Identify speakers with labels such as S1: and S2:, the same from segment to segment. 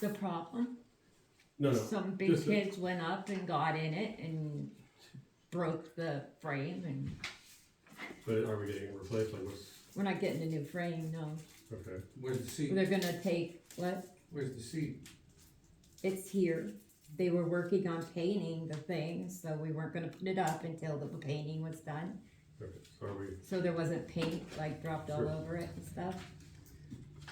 S1: the problem?
S2: No, no.
S1: Some big
S2: just a-
S1: kids went up and got in it and broke the frame and
S2: But are we getting it replaced? Like what's
S1: we're not getting a new frame, no.
S2: okay?
S3: Where's the seat?
S1: They're gonna take, what,
S3: Where's the seat?
S1: it's here. They were working on painting the thing, so we weren't gonna put it up until the painting was done.
S2: Okay. So are we?
S1: So there wasn't paint like dropped all
S2: Sure.
S1: over it and stuff.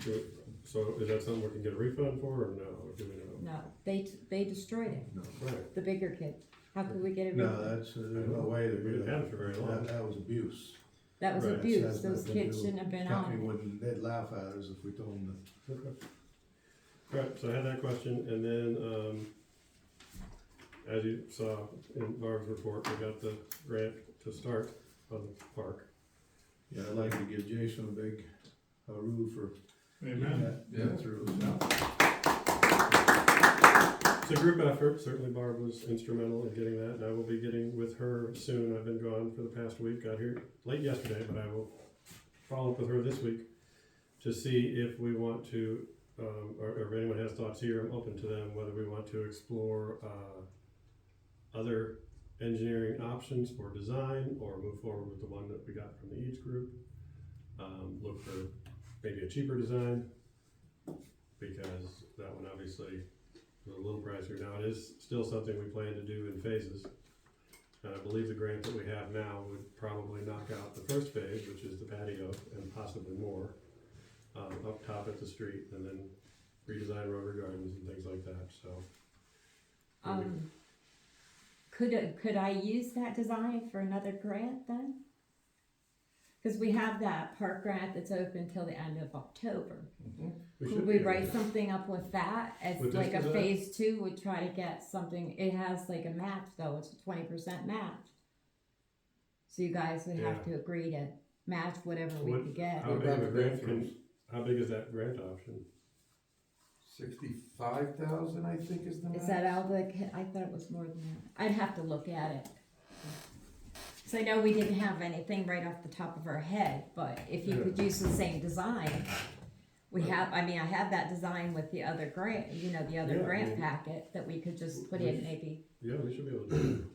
S2: do- So is that something we can get a refund for, or no? Or do we
S1: No, they, they destroyed it,
S4: No,
S2: know? Right.
S1: the bigger kids. How could we get it?
S4: no,
S1: replaced?
S4: that's, there's no way to
S2: We
S4: do
S2: didn't
S4: that.
S2: have it for very long.
S4: That, that was abuse.
S1: That was
S2: Right,
S1: abuse,
S4: That's
S1: those
S4: nothing to
S1: kids
S4: do.
S1: shouldn't have been on it.
S4: Company wouldn't, they'd laugh at us if we told them that.
S2: Okay. All right, so I had that question, and then, um, as you saw in Barb's report, we got the grant to start on the park.
S4: Yeah, I'd like to give Jason a big hurrah for
S5: Amen.
S4: that, that through.
S2: It's a group effort, certainly Barb was instrumental in getting that, and I will be getting with her soon, I've been gone for the past week, got here late yesterday, but I will follow up with her this week to see if we want to, um, or or if anyone has thoughts here, I'm open to them, whether we want to explore, uh, other engineering options for design, or move forward with the one that we got from the Eads Group. Um, look for maybe a cheaper design, because that one obviously was a little pricier. Now, it is still something we plan to do in phases. And I believe the grant that we have now would probably knock out the first phase, which is the patio and possibly more, um, up top at the street and then redesign Rover Gardens and things like that, so.
S1: Um, could, it- could I use that design for another grant then? Cause we have that park grant that's open till the end of October.
S2: should
S1: Could
S2: be
S1: we
S2: able to-
S1: write something up with that as
S2: With this
S1: like a
S2: design?
S1: phase two, we try to get something, it has like a match though, it's a twenty percent match. So you guys would have to agree to match whatever we
S2: What-
S1: could get.
S2: How big of a grant can, how big is that grant option?
S3: Sixty-five thousand, I think is the max.
S1: Is that all the, I thought it was more than that. I'd have to look at it. So I know we didn't have anything right off the top of our head, but if you could use the same design, we have, I mean, I have that design with the other grant, you know, the other
S2: Yeah, I
S1: grant
S2: mean-
S1: packet that we could just put in maybe.
S2: Yeah, we should be able to do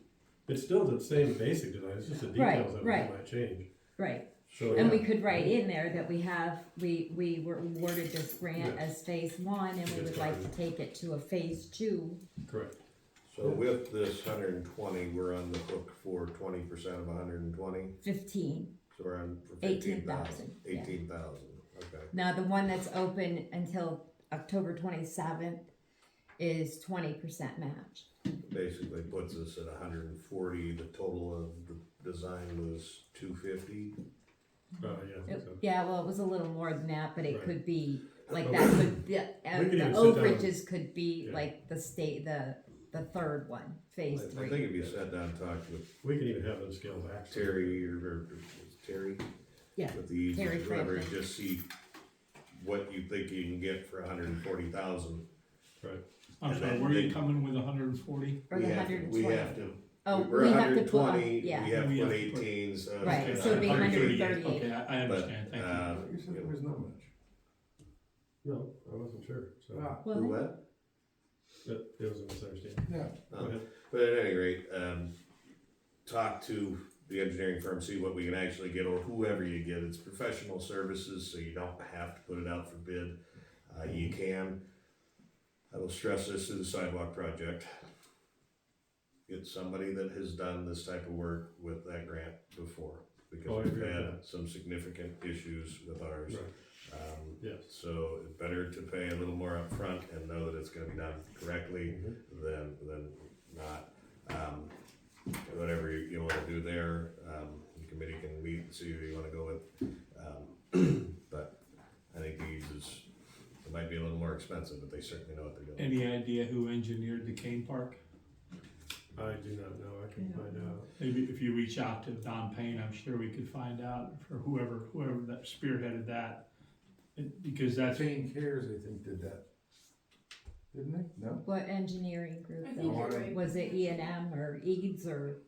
S2: it. It's still the same basic design, it's just the
S1: Right,
S2: details of it
S1: right.
S2: that might change.
S1: Right,
S2: So,
S1: and
S2: Oh, yeah,
S1: we could write in there that we have, we, we were awarded this grant
S2: Yeah.
S1: as phase one and we
S2: Get
S1: would like to
S2: started.
S1: take it to a phase two.
S2: correct.
S6: So with this hundred and twenty, we're on the hook for twenty percent of hundred and twenty,
S1: Fifteen.
S6: so we're on for fifteen thousand.
S1: 18,000, yeah.
S6: okay.
S1: Now, the one that's open until October twenty-seventh is twenty percent match.
S6: Basically puts us at hundred and forty, the total of the design was two fifty.
S2: Uh, yeah, I think
S1: It-
S2: so.
S1: Yeah, well, it was a little more than that, but it
S2: Right.
S1: could be, like,
S2: But
S1: that
S2: we-
S1: could, the, uh,
S2: we could
S1: the
S2: even sit down and-
S1: overages could be
S2: Yeah.
S1: like the state, the, the third one,
S6: I
S1: phase
S6: think
S1: three.
S6: if you sat down and talked with
S2: We can even have them scale back.
S6: Terry or, or Terry,
S1: Yeah,
S6: with the
S1: Terry
S6: whoever,
S1: Franklin.
S6: just see what you think you can get for hundred and forty thousand.
S2: Right.
S5: I'm
S6: And
S5: sorry,
S6: then
S5: where are you
S6: they-
S5: coming with hundred and forty?
S1: or the hundred and
S6: We have
S1: twenty.
S6: to,
S1: Oh,
S6: we're
S1: we have to put, on-
S6: 120, We
S1: yeah,
S6: have um,
S5: We
S6: to put
S5: have to put-
S6: eighteen, so.
S1: Right,
S5: Okay,
S1: so it'd be
S5: 138.
S1: 138.
S5: Okay, I, I
S6: But,
S5: understand, thank you.
S6: uh,
S3: You said there was not much.
S2: No, I wasn't sure, so,
S3: Ah,
S6: the
S1: well,
S6: what?
S2: it, it was a misunderstanding.
S3: Yeah,
S2: Go ahead.
S6: But at any rate, um, talk to the engineering firm, see what we can actually get, or whoever you get, it's professional services, so you don't have to put it out for bid. Uh, you
S1: Mm-hmm.
S6: can, I will stress this to the sidewalk project. Get somebody that has done this type of work with that grant before,
S2: Oh, I
S6: because we've
S2: agree with
S6: had some significant issues with ours.
S2: Right.
S6: Um,
S2: Yes.
S6: So it's better to pay a little more upfront and know that it's gonna be done correctly than, than not. Um, whatever you, you wanna do there, um, the committee can meet and see who you wanna go with. Um, But I think these is, it might be a little more expensive, but they certainly know what they're doing.
S5: Any idea who engineered the Kane Park?
S2: I do not know, I can
S1: I don't
S2: find
S1: know.
S2: out.
S5: Maybe if you reach out to Don Payne, I'm sure we could find out for whoever, whoever that spearheaded that. It- Because that's,
S3: Jane Cares, I think, did that. Didn't they? No?
S1: what engineering group
S7: I think
S1: though?
S3: you're
S7: right.
S1: Was it E and M or Eads or,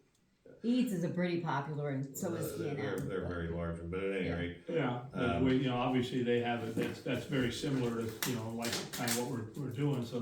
S1: Eads is a pretty popular and so
S6: Uh,
S1: is E
S6: they're-
S1: and
S6: They're,
S1: M.
S6: they're very large, but at any
S1: Yeah.
S6: rate,
S5: yeah,
S6: Um,
S5: we- you know, obviously they have it, that's, that's very similar to, you know, like kind of what we're, we're doing, so